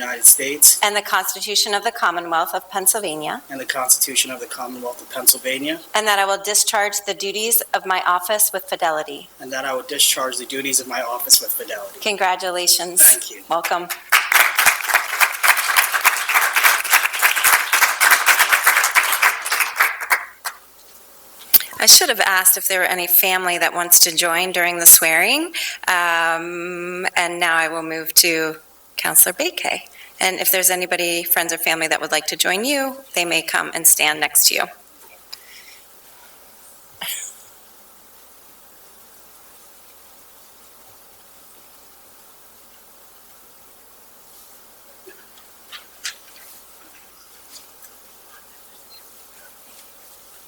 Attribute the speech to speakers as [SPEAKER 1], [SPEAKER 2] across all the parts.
[SPEAKER 1] United States
[SPEAKER 2] and the Constitution of the Commonwealth of Pennsylvania,
[SPEAKER 1] and the Constitution of the Commonwealth of Pennsylvania,
[SPEAKER 2] and that I will discharge the duties of my office with fidelity.
[SPEAKER 1] and that I will discharge the duties of my office with fidelity.
[SPEAKER 2] Congratulations.
[SPEAKER 1] Thank you.
[SPEAKER 2] Welcome. I should have asked if there were any family that wants to join during the swearing. Um, And now I will move to Counselor Bakay. And if there's anybody, friends or family, that would like to join you, they may come and stand next to you.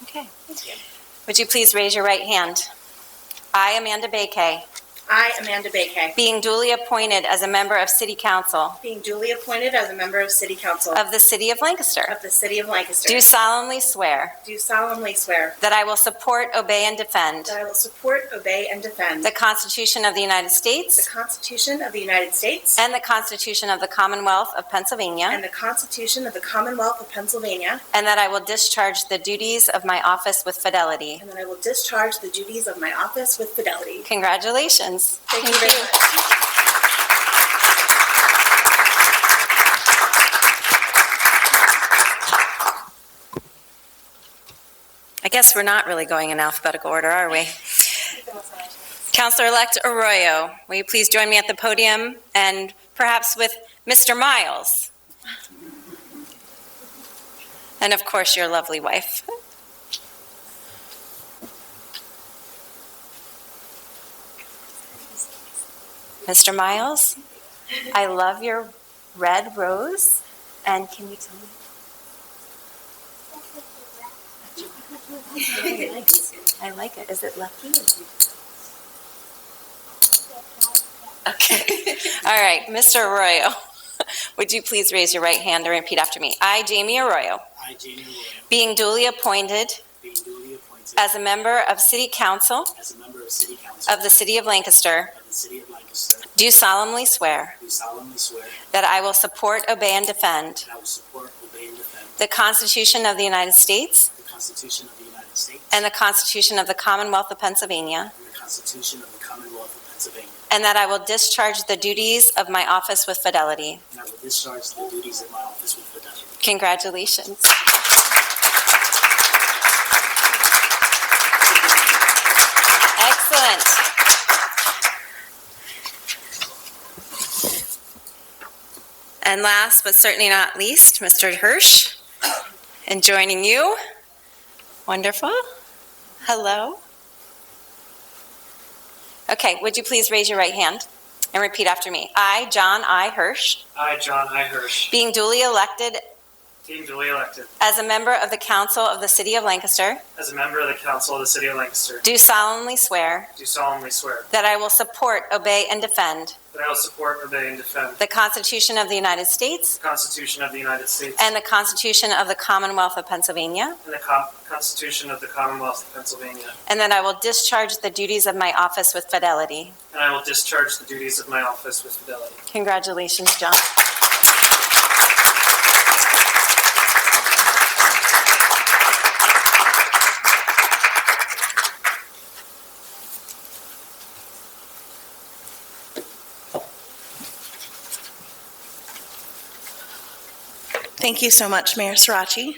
[SPEAKER 2] Okay. Would you please raise your right hand? I, Amanda Bakay,
[SPEAKER 3] I, Amanda Bakay,
[SPEAKER 2] being duly appointed as a member of City Council
[SPEAKER 3] being duly appointed as a member of City Council
[SPEAKER 2] of the City of Lancaster,
[SPEAKER 3] of the City of Lancaster,
[SPEAKER 2] do solemnly swear
[SPEAKER 3] do solemnly swear
[SPEAKER 2] that I will support, obey, and defend
[SPEAKER 3] that I will support, obey, and defend
[SPEAKER 2] the
[SPEAKER 3] the
[SPEAKER 2] Constitution of the United States
[SPEAKER 3] Constitution of the United States
[SPEAKER 2] and the Constitution of the Commonwealth of Pennsylvania,
[SPEAKER 3] and the Constitution of the Commonwealth of Pennsylvania,
[SPEAKER 2] and that I will discharge the duties of my office with fidelity.
[SPEAKER 3] and that I will discharge the duties of my office with fidelity.
[SPEAKER 2] Congratulations.
[SPEAKER 3] Thank you very much.
[SPEAKER 2] I guess we're not really going in alphabetical order, are we? Counselor-elect Arroyo, will you please join me at the podium and perhaps with Mr. Miles? And of course, your lovely wife. Mr. Miles, I love your red rose, and can you tell me? I like it. Is it lucky? Okay. All right, Mr. Arroyo, would you please raise your right hand and repeat after me? I, Jamie Arroyo,
[SPEAKER 1] I, Jamie Roy,
[SPEAKER 2] being duly appointed
[SPEAKER 1] being duly appointed
[SPEAKER 2] as a member of City Council
[SPEAKER 1] as a member of City Council
[SPEAKER 2] of the City of Lancaster,
[SPEAKER 1] of the City of Lancaster,
[SPEAKER 2] do solemnly swear
[SPEAKER 1] do solemnly swear
[SPEAKER 2] that I will support, obey, and defend
[SPEAKER 1] that I will support, obey, and defend
[SPEAKER 2] the Constitution of the United States
[SPEAKER 1] the Constitution of the United States
[SPEAKER 2] and the Constitution of the Commonwealth of Pennsylvania,
[SPEAKER 1] and the Constitution of the Commonwealth of Pennsylvania,
[SPEAKER 2] and that I will discharge the duties of my office with fidelity.
[SPEAKER 1] and I will discharge the duties of my office with fidelity.
[SPEAKER 2] Congratulations. Excellent. And last but certainly not least, Mr. Hirsch, and joining you. Wonderful. Hello. Okay, would you please raise your right hand and repeat after me? I, John I. Hirsch,
[SPEAKER 4] I, John I. Hirsch,
[SPEAKER 2] being duly elected
[SPEAKER 4] being duly elected
[SPEAKER 2] As a member of the Council of the City of Lancaster,
[SPEAKER 4] as a member of the Council of the City of Lancaster,
[SPEAKER 2] do solemnly swear
[SPEAKER 4] do solemnly swear
[SPEAKER 2] that I will support, obey, and defend
[SPEAKER 4] that I will support, obey, and defend
[SPEAKER 2] the Constitution of the United States
[SPEAKER 4] the Constitution of the United States
[SPEAKER 2] and the Constitution of the Commonwealth of Pennsylvania,
[SPEAKER 4] and the Com- Constitution of the Commonwealth of Pennsylvania,
[SPEAKER 2] and that I will discharge the duties of my office with fidelity.
[SPEAKER 4] and I will discharge the duties of my office with fidelity.
[SPEAKER 2] Congratulations, John.
[SPEAKER 5] Thank you so much, Mayor Sirachi.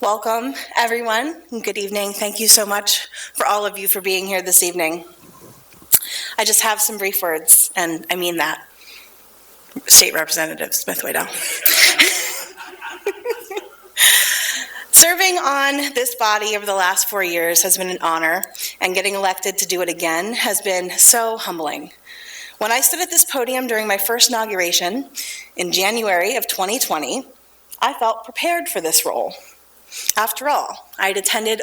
[SPEAKER 5] Welcome, everyone, and good evening. Thank you so much for all of you for being here this evening. I just have some brief words, and I mean that. State Representative Smith Waddell. Serving on this body over the last four years has been an honor, and getting elected to do it again has been so humbling. When I stood at this podium during my first inauguration in January of 2020, I felt prepared for this role. After all, I had attended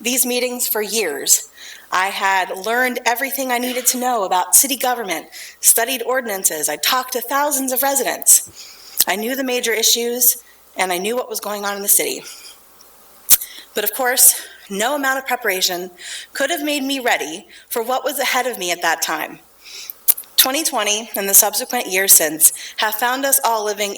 [SPEAKER 5] these meetings for years. I had learned everything I needed to know about city government, studied ordinances, I talked to thousands of residents. I knew the major issues, and I knew what was going on in the city. But of course, no amount of preparation could have made me ready for what was ahead of me at that time. 2020 and the subsequent years since have found us all living